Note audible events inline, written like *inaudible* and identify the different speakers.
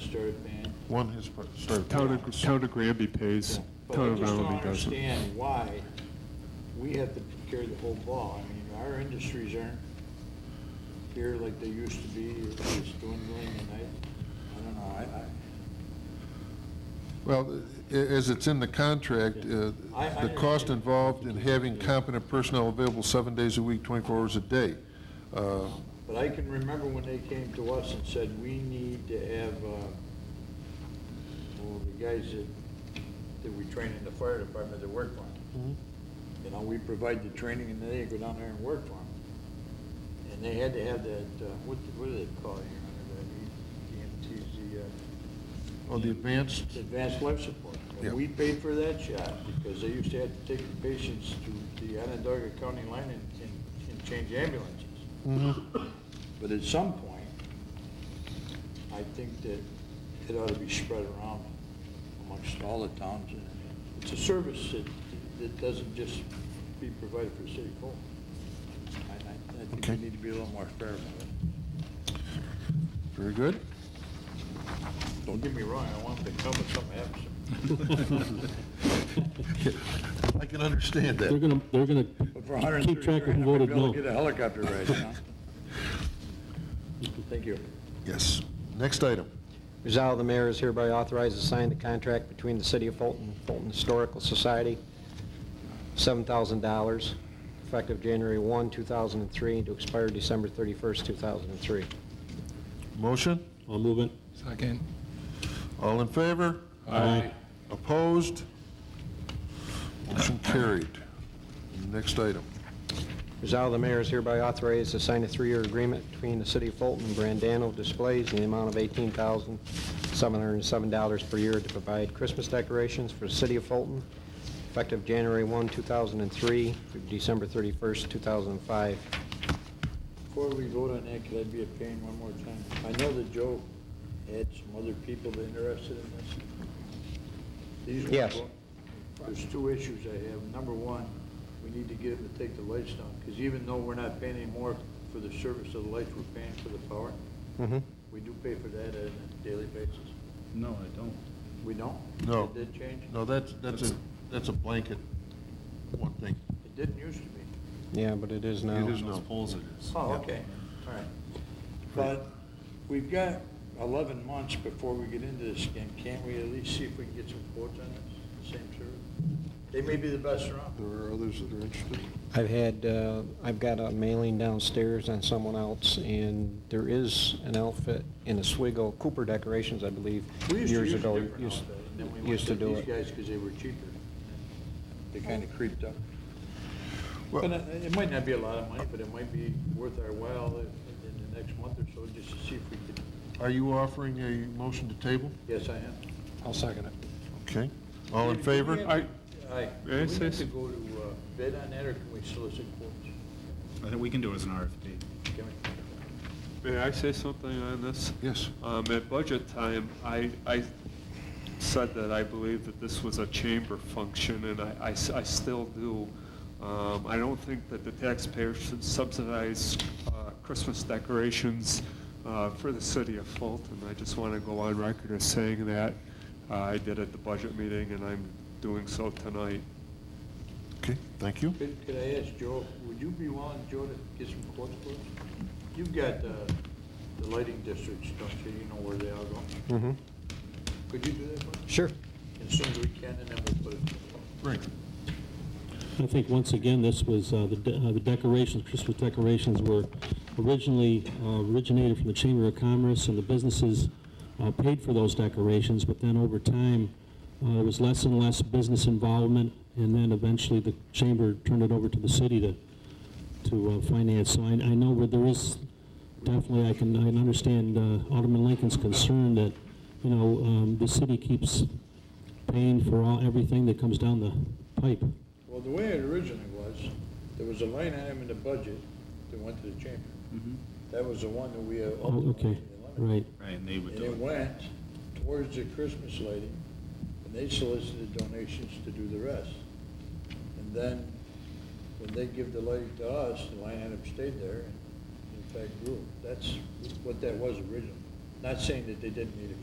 Speaker 1: served ban.
Speaker 2: One has per- served.
Speaker 3: Town of, town of Granby pays,
Speaker 1: But
Speaker 3: town
Speaker 1: I
Speaker 3: of
Speaker 1: just don't
Speaker 3: Allenby doesn't.
Speaker 1: understand *laughs* why we have to carry the whole ball. I mean, our industries aren't here like they used to be, it's just dwindling, and I, I don't know, I, I.
Speaker 2: Well, a- as it's in the contract, uh,
Speaker 1: I- I
Speaker 2: the
Speaker 1: understand.
Speaker 2: cost involved in having competent personnel available seven days a week, 24 hours a day. Uh,
Speaker 1: But I can remember when they came to us and said, we need to have, uh, well, the guys that, that we train in the fire department that work for them. You know, we provide the training and they go down there and work for them. And they had to have that, uh, what, what do they call it here, under that, E- EMTs, the, uh,
Speaker 2: Oh, the advanced,
Speaker 1: advanced life support.
Speaker 2: Yeah.
Speaker 1: And we paid for that shot because they used to have to take the patients to the Onondaga County line and, and- and change ambulances. Mm-hmm. But at some point, I think that it ought to be spread around amongst all the towns. and It's a service that, that doesn't just be provided for City Hall. I, I- I think
Speaker 2: Okay.
Speaker 1: we need to be a little more fair about it. *laughs*
Speaker 2: very good.
Speaker 1: Don't get me wrong, I want them to come if something happens.
Speaker 2: I can understand
Speaker 4: They're
Speaker 2: that.
Speaker 4: gonna, they're gonna
Speaker 1: But for 130
Speaker 4: keep track of
Speaker 1: grand,
Speaker 4: who
Speaker 1: I might
Speaker 4: voted
Speaker 1: be able
Speaker 4: no.
Speaker 1: to Get a helicopter ride, you know? *laughs* Thank you.
Speaker 2: Yes. Next item.
Speaker 5: Resolved, the mayor is hereby authorized to sign the contract between the City of Fulton, and Fulton Historical Society, $7,000, effective January 1, 2003, and to expire December 31st, 2003.
Speaker 2: Motion?
Speaker 4: I'll move it.
Speaker 3: Second.
Speaker 2: All in favor?
Speaker 4: Aye.
Speaker 2: Opposed? Motion carried. Next item.
Speaker 5: Resolved, the mayor is hereby authorized to sign a three-year agreement between the City of Fulton and Brandano Displays in the amount of $18,707 per year to provide Christmas decorations for the City of Fulton, effective January 1, 2003, through December 31st, 2005.
Speaker 1: Before we vote on that, could I be a pain one more time? I know that Joe had some other people that interested in this. These were
Speaker 5: Yes.
Speaker 1: both- There's two issues I have. Number one, we need to get them to take the lights down, because even though we're not paying any more for the service of the lights, we're paying for the power.
Speaker 5: Mhm.
Speaker 1: We do pay for that on a daily basis.
Speaker 6: No, I don't.
Speaker 1: We don't?
Speaker 2: No.
Speaker 1: It did change?
Speaker 2: No, that's, that's a, that's a blanket, one thing.
Speaker 1: It didn't used to be.
Speaker 5: Yeah, but it is now.
Speaker 2: It is
Speaker 6: On
Speaker 2: no.
Speaker 6: Those polls it is.
Speaker 1: Oh, okay, all right. But we've got 11 months before we get into this again. Can't we at least see if we can get some quotes on this, same service? They may be the best around.
Speaker 2: There are others that are interested.
Speaker 5: I've had, uh, I've got a mailing downstairs on someone else, and there is an outfit in Oswego, Cooper Decorations, I believe,
Speaker 1: We used to
Speaker 5: years
Speaker 1: use a
Speaker 5: ago.
Speaker 1: different
Speaker 5: used-
Speaker 1: outfit, and then we went
Speaker 5: Used to
Speaker 1: to
Speaker 5: do
Speaker 1: these
Speaker 5: it.
Speaker 1: guys because they were cheaper. They kind of creeped up.
Speaker 2: Well-
Speaker 1: But uh, it it might not be a lot of money, but it might be worth our while in in the next month or so, just to see if we could,
Speaker 2: Are you offering a motion to table?
Speaker 1: yes, I am.
Speaker 5: I'll second it.
Speaker 2: Okay. All in favor?
Speaker 3: I,
Speaker 1: Aye. Do we
Speaker 3: Yes,
Speaker 1: need
Speaker 3: yes.
Speaker 1: to go to uh, bid on that, or can we solicit quotes?
Speaker 6: I think we can do it as an RFP.
Speaker 1: Can we?
Speaker 3: may I say something on this?
Speaker 2: Yes.
Speaker 3: Um, at budget time, I, I said that I believe that this was a chamber function, and I- I, s- I still do. Um, I don't think that the taxpayer should subsidize, uh, Christmas decorations, uh, for the city of Fulton. I just want to go on record as saying that. Uh, I did at the budget meeting, and I'm doing so tonight.
Speaker 2: Okay, thank you.
Speaker 1: Could, could I ask Joe, would you be willing, Joe, to get some quotes for us? You've got uh, the lighting districts, don't you, you know where they all go?
Speaker 5: Mm-hmm.
Speaker 1: Could you do that for us?
Speaker 5: Sure.
Speaker 1: As soon as we can, and then we'll put it.
Speaker 2: Right.
Speaker 4: I think, once again, this was, uh, the de- uh, the decorations, Christmas decorations were originally, uh, originated from the Chamber of Commerce, and the businesses uh, paid for those decorations, but then over time, uh, there was less and less business involvement, and then eventually the Chamber turned it over to the city to, to uh, finance. So I, I know where there is, definitely, I can, I can understand uh, Alderman Lincoln's concern that, you know, um, the city keeps paying for all, everything that comes down the pipe.
Speaker 1: Well, the way it originally was, there was a line item in the budget that went to the chamber. That was the one that we had.
Speaker 4: Oh, okay, right.
Speaker 6: Right, and they would
Speaker 1: And
Speaker 6: do
Speaker 1: it
Speaker 6: it.
Speaker 1: went towards the Christmas lighting, and they solicited donations to do the rest. And then, when they give the lighting to us, the line item stayed there, and in fact grew. That's what that was originally. Not saying that they didn't need it